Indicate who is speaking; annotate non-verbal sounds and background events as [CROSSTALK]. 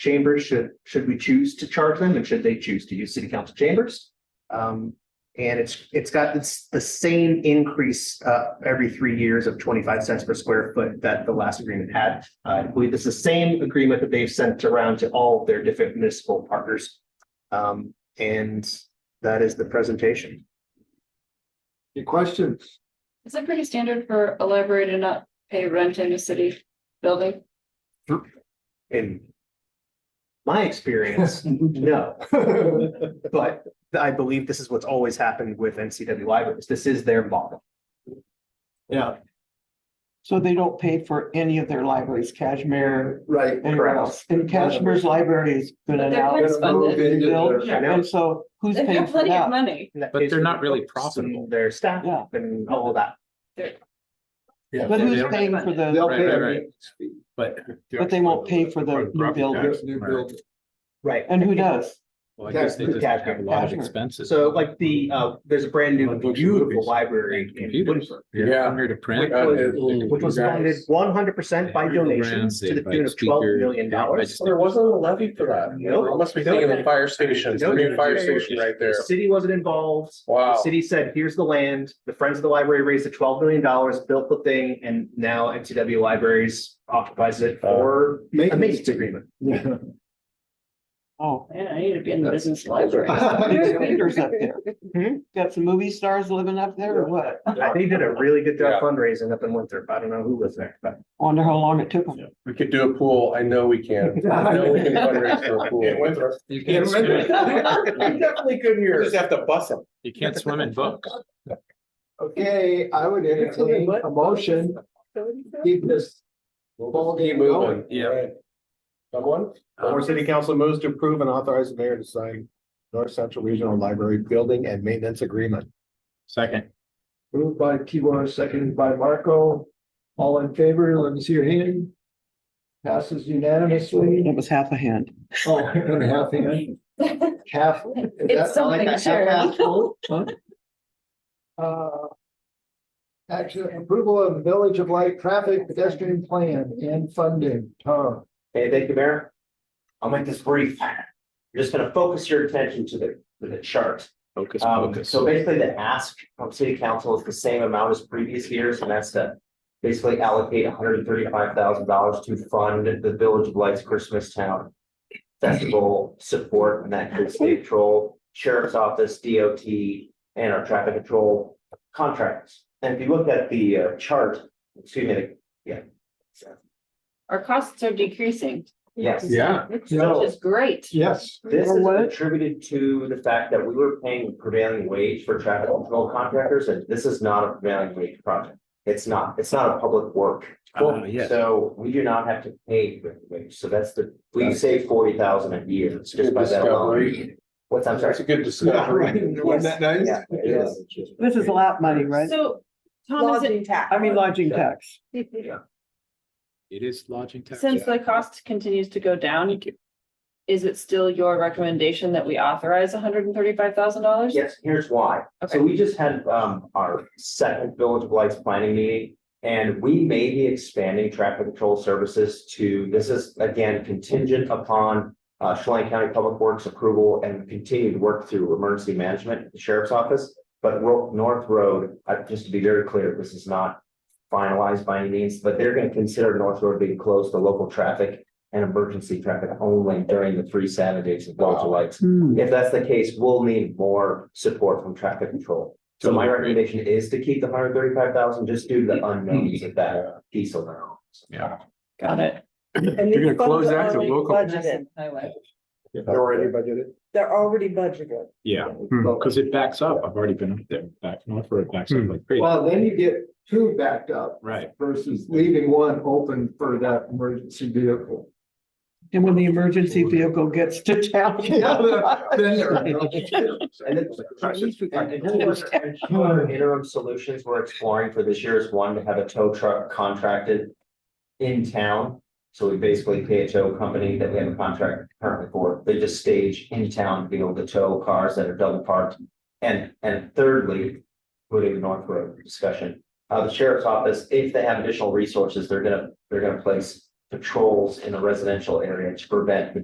Speaker 1: chambers should, should we choose to charge them and should they choose to use city council chambers? Um, and it's, it's got this, the same increase, uh, every three years of twenty-five cents per square foot that the last agreement had. Uh, I believe it's the same agreement that they've sent around to all of their different municipal partners. Um, and that is the presentation.
Speaker 2: Any questions?
Speaker 3: Is it pretty standard for a library to not pay rent in a city building?
Speaker 1: In my experience, no. But I believe this is what's always happened with NCW libraries. This is their model.
Speaker 2: Yeah,
Speaker 4: So they don't pay for any of their libraries, Kashmir,
Speaker 2: right.
Speaker 4: anywhere else. And Kashmir's library has been
Speaker 3: But they're
Speaker 4: announced.
Speaker 3: It's funded.
Speaker 2: Built.
Speaker 1: Yeah.
Speaker 4: And so who's
Speaker 3: They have
Speaker 4: paying for
Speaker 3: plenty of
Speaker 4: that?
Speaker 3: money.
Speaker 1: And that
Speaker 5: But
Speaker 1: is
Speaker 5: they're not
Speaker 1: their
Speaker 5: really
Speaker 1: books
Speaker 5: profitable.
Speaker 1: and Their staff
Speaker 4: Yeah.
Speaker 1: and all of that.
Speaker 2: Yeah.
Speaker 4: But who's
Speaker 5: They'll-
Speaker 4: paying for the,
Speaker 2: They'll
Speaker 5: Right,
Speaker 2: pay
Speaker 5: right,
Speaker 2: a
Speaker 5: right.
Speaker 2: maintenance fee.
Speaker 5: But.
Speaker 4: but they won't pay for the new building.
Speaker 2: Yes, New building.
Speaker 1: Right.
Speaker 4: And who does?
Speaker 5: Well, I guess they just have a lot of expenses.
Speaker 1: So like the, uh, there's a brand new
Speaker 5: On books and
Speaker 1: beautiful
Speaker 5: movies.
Speaker 1: library in
Speaker 5: Computers.
Speaker 1: Bloomsburg,
Speaker 2: Yeah.
Speaker 5: Here to print.
Speaker 1: Which was-
Speaker 5: They can
Speaker 1: which was
Speaker 5: do that.
Speaker 1: funded one hundred percent by
Speaker 5: Underground,
Speaker 1: donations to the
Speaker 5: they
Speaker 1: tune
Speaker 5: invite
Speaker 1: of twelve
Speaker 5: speakers.
Speaker 1: million dollars.
Speaker 6: Well, There wasn't a levy for that.
Speaker 1: No.
Speaker 6: I Must be thinking of the fire station, the new fire
Speaker 1: No,
Speaker 6: station right there.
Speaker 1: The City wasn't involved. The
Speaker 6: Wow.
Speaker 1: city said, here's the land. The Friends of the Library raised the twelve million dollars, built the thing, and now NCW Libraries occupies it for a maintenance agreement. [LAUGHS]
Speaker 2: Yeah. [LAUGHS]
Speaker 4: Oh,
Speaker 3: Man, I need to be in the business library.
Speaker 4: there's theaters up
Speaker 2: Hmm?
Speaker 4: there. Got some movie stars living up there or what?
Speaker 1: I think they did a really good
Speaker 6: Yeah.
Speaker 1: job fundraising up in Winthrop. I don't know who was there,
Speaker 6: [LAUGHS]
Speaker 1: but.
Speaker 4: Wonder how long it took them.
Speaker 6: We could do a pool. I know we can. [LAUGHS] I know we can fundraise for a pool.
Speaker 5: You
Speaker 1: [LAUGHS]
Speaker 5: can't swim,
Speaker 6: Definitely good here. Just have to bust them.
Speaker 5: you [LAUGHS] can't swim in books.
Speaker 2: Okay, I would entertain a motion, keep this, Ball game going.
Speaker 6: Oh, Yeah. Someone?
Speaker 2: Or city council moves to approve and authorize the mayor to sign North Central Regional Library Building and Maintenance Agreement.
Speaker 5: Second,
Speaker 2: Moved by Kiwanis, seconded by Marco. All in favor, let me see your hand. Passes unanimously.
Speaker 4: It was half a hand.
Speaker 2: Oh, and a half hand,
Speaker 3: [LAUGHS]
Speaker 2: half. is
Speaker 3: It's
Speaker 2: that like
Speaker 3: something,
Speaker 2: a half
Speaker 3: sure.
Speaker 2: ass [LAUGHS] full? Huh? Uh, Action approval of Village of Light Traffic Pedestrian Plan and Funding, Tom.
Speaker 7: Hey, thank you, Mayor. I'll make this brief. You're just gonna focus your attention to the, to the chart.
Speaker 5: focus,
Speaker 7: Um,
Speaker 5: focus.
Speaker 7: so basically the ask from city council is the same amount as previous years, and that's to basically allocate hundred and thirty-five thousand dollars to fund the Village of Lights Christmas Town Festival support, and that includes state patrol, sheriff's office, DOT, and our traffic control contractors. And if you look at the uh, chart, excuse me,
Speaker 3: Our costs are decreasing,
Speaker 7: yes.
Speaker 2: Yeah.
Speaker 3: which
Speaker 2: Yeah.
Speaker 3: is great.
Speaker 2: Yes.
Speaker 7: This
Speaker 4: Or
Speaker 7: is
Speaker 4: what?
Speaker 7: attributed to the fact that we were paying prevailing wage for traffic control contractors, and this is not a prevailing wage project. It's not, it's not a public work.
Speaker 5: Ah, yes.
Speaker 7: So we do not have to pay prevailing wage, so that's the, we save forty thousand a year just by that alone.
Speaker 6: Discovery.
Speaker 7: What's, I'm sorry.
Speaker 6: That's a good discovery.
Speaker 2: Wasn't that nice?
Speaker 7: Yeah, it is.
Speaker 4: This is lap money, right?
Speaker 8: So, Tom, is
Speaker 3: Lodging
Speaker 8: it,
Speaker 3: tax.
Speaker 4: I mean lodging tax.
Speaker 5: It is lodging tax.
Speaker 3: Since the cost continues to go down, you could- is it still your recommendation that we authorize hundred and thirty-five thousand dollars?
Speaker 7: Yes, here's why.
Speaker 3: Okay.
Speaker 7: So we just had um our second Village of Lights planning meeting. And we may be expanding traffic control services to, this is again contingent upon. Uh, Chelan County Public Works approval and continued work through emergency management, the sheriff's office. But Ro- North Road, uh, just to be very clear, this is not finalized by any means, but they're gonna consider North Road being closed to local traffic. And emergency traffic only during the three Saturdays of Village of Lights.
Speaker 4: Hmm.
Speaker 7: If that's the case, we'll need more support from traffic control. So my recommendation is to keep the hundred thirty-five thousand, just due to the unknowns of that piece alone.
Speaker 3: Got it.
Speaker 8: and these funds are already budgeted,
Speaker 3: Highway.
Speaker 2: Already budgeted.
Speaker 8: they're already budgeted.
Speaker 5: Yeah, because it backs up. I've already been up there, back north where it backs up like crazy.
Speaker 2: Well, then you get two backed up.
Speaker 5: [LAUGHS] Right.
Speaker 2: Versus leaving one open for that emergency vehicle.
Speaker 4: And when the emergency vehicle gets to town. [LAUGHS]
Speaker 2: Then
Speaker 7: And then, and another other interim solutions we're exploring for this year is one to have a tow truck contracted in town. So we basically pay a tow company that we have a contract currently for, they just stage in town to be able to tow cars that are double parked. And, and thirdly, moving to North Road discussion, uh, the sheriff's office, if they have additional resources, they're gonna, they're gonna place patrols in the residential area to prevent